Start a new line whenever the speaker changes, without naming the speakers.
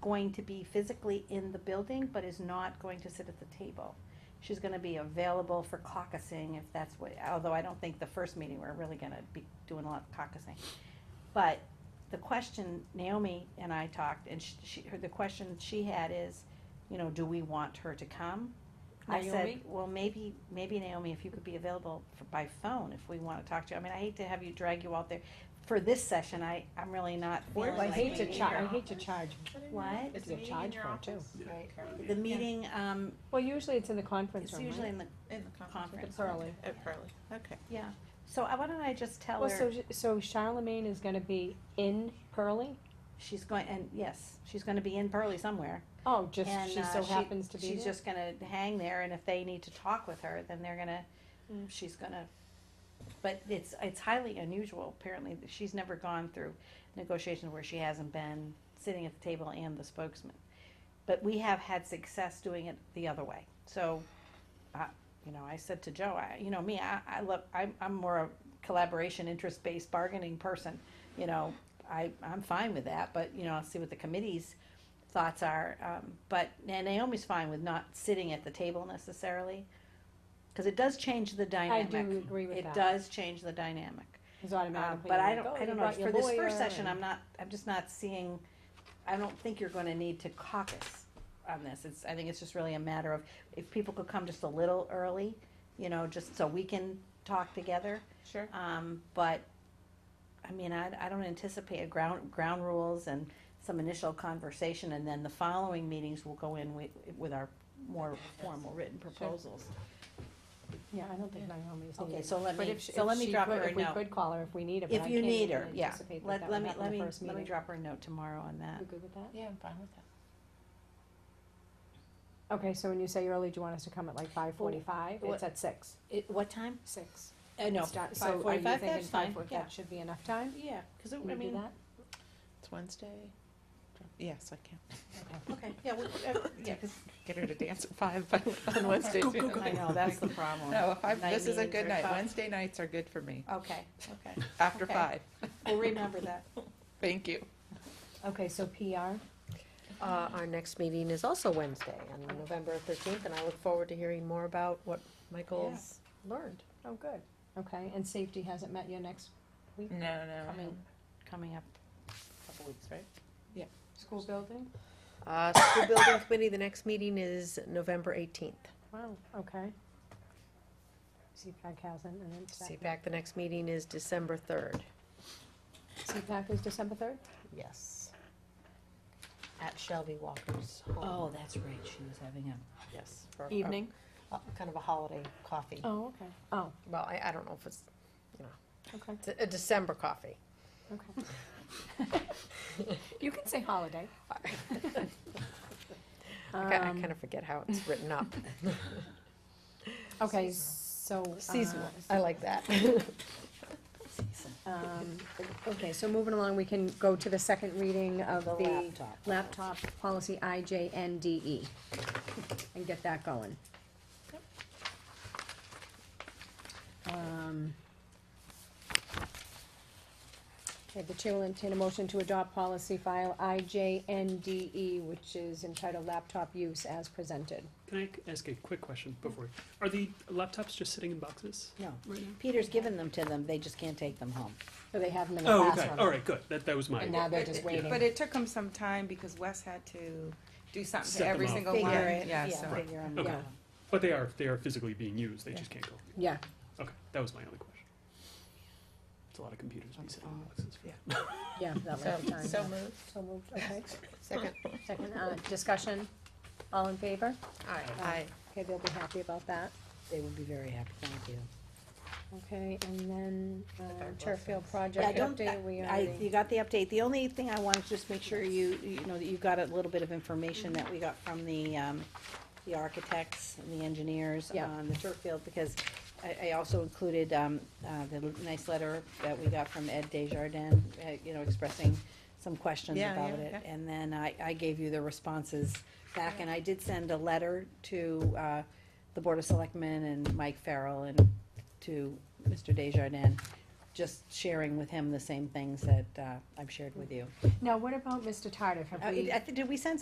going to be physically in the building, but is not going to sit at the table. She's gonna be available for caucusing if that's what, although I don't think the first meeting, we're really gonna be doing a lot of caucusing. But the question Naomi and I talked, and sh- she, her, the question she had is, you know, do we want her to come? I said,
Naomi?
well, maybe, maybe Naomi, if you could be available for, by phone, if we wanna talk to you. I mean, I hate to have you drag you out there. For this session, I, I'm really not feeling
I
like
hate to
we need
charge,
her.
I hate to charge,
What?
It's a charge for it, too.
Right.
The meeting, um,
well, usually it's in the conference
it's
room,
usually
right?
in the,
In the
Conference.
conference.
Early.
At Pearly, okay.
yeah. So I, why don't I just tell
Well, so,
her,
sh- so Charlemagne is gonna be in Pearly?
she's going, and yes, she's gonna be in Pearly somewhere.
Oh, just,
And,
she
uh,
so happens to be
She's
there?
just gonna hang there, and if they need to talk with her, then they're gonna,
Mm.
she's gonna, but it's, it's highly unusual, apparently, that she's never gone through negotiations where she hasn't been sitting at the table and the spokesman. But we have had success doing it the other way, so, I, you know, I said to Joe, I, you know, me, I, I love, I'm, I'm more a collaboration, interest-based bargaining person, you know, I, I'm fine with that, but, you know, I'll see what the committee's thoughts are. Um, but and Naomi's fine with not sitting at the table necessarily, because it does change the
I
dynamic.
do agree with
It
that.
does change the dynamic.
It's
Uh,
automatically.
but I
like,
don't,
oh,
I
you
don't know.
brought your
For this
lawyer
first session,
and-
I'm not. I'm just not seeing. I don't think you're going to need to caucus on this. It's. I think it's just really a matter of if people could come just a little early, you know, just so we can talk together.
Sure.
Um, but, I mean, I, I don't anticipate a ground, ground rules and some initial conversation, and then the following meetings will go in with, with our more formal written proposals.
Yeah, I don't think Naomi's needed.
Okay, so let
But
me,
if she-
so
if
let me
she
drop
could-
her a
If we
note.
could call her if we need her, but I
If you
can't
need
even
her, yeah.
anticipate that
Let,
that would
let me,
happen
let
in
me,
the first
let me
meeting.
drop her a note tomorrow on that.
You good with that?
Yeah, I'm fine with that.
Okay, so when you say early, do you want us to come at like five forty-five?
what-
It's at six,
It- What time?
six.
Uh, no,
It's not- so are
five
you
forty-five,
thinking
that's fine,
5:45?
yeah.
That should be enough time?
Yeah, because,
Can
I
you do
mean,
that?
It's Wednesday. Yes, I can.
okay, yeah, we- uh, yeah, 'cause
Get her to dance at five by- on Wednesday.
Go, go, go.
I know, that's the problem.
No, five,
Night
this is a
meetings
good
are
night.
tough.
Wednesday nights are good for me,
Okay, okay,
after
Okay.
five.
we'll remember that.
Thank you.
Okay, so PR,
Uh, our next meeting is also Wednesday, on November thirteenth, and I look forward to hearing more about what Michael's learned.
oh, good. Okay, and safety hasn't met your next
No, no.
Coming, coming up a couple weeks, right?
school building?
Uh, school building committee, the next meeting is November eighteenth.
Wow, okay. CPAC hasn't, and then that-
CPAC, the next meeting is December third.
CPAC is December third?
Yes. At Shelby Walker's
Oh,
home.
that's right, she was having a.
yes. for a-
Evening?
a- Kind of a holiday coffee.
Oh, okay. Oh,
Well, I, I don't know if it's,
okay,
it's a- a December coffee.
okay. You can say holiday.
I ca- I
Um,
kind of forget how it's written up.
Okay, so. uh,
Seasonal, I like that.
um, Okay, so moving along, we can go to the second reading of the laptop policy IJNDE E. and get that going. Um, Okay, the chair will entertain a motion to adopt policy file IJNDE, E, which is entitled laptop use as presented.
Can I c- ask a quick question before? Are the laptops just sitting in boxes?
No.
Right now?
Peter's given them to them, they just can't take them home.
So they have them in the
Oh, okay,
classroom.
all right, good. That, that was
And
mine.
now they're just waiting.
But it took him some time because Wes had to do something
Set
to every
them up.
single one.
Figure it, yeah,
Yeah, so
figure 'em
Okay.
out.
But they are, they are physically being used, they just can't go.
Yeah,
Okay, that was my only question. It's a lot of computers being sitting in boxes. for that.
yeah, that
So,
length of time.
so
yeah.
moved.
So moved, okay.
Second,
Second, uh, discussion, all in favor?
aye.
Aye.
Okay, they'll be happy about that.
They would be very happy, thank you.
Okay, and then, uh,
Third
Turffield
Yeah, I
project
don't,
update, we
I, you
already,
got the update, the only thing I wanted to just make sure you, you know, that you got a little bit of information that we got from the, um, the architects and the engineers
Yeah.
on the turf field, because I, I also included, um, uh, the l- nice letter that we got from Ed Desjardins, uh, you know, expressing some questions
Yeah,
about
yeah,
it,
yeah.
and then I, I gave you the responses back, and I did send a letter to, uh, the Board of Selectmen and Mike Farrell and to Mr. Desjardins, just sharing with him the same things that, uh, I've shared with you.
Now, what about Mr. Tardif?
Uh,
Have we?
I- I- Did we send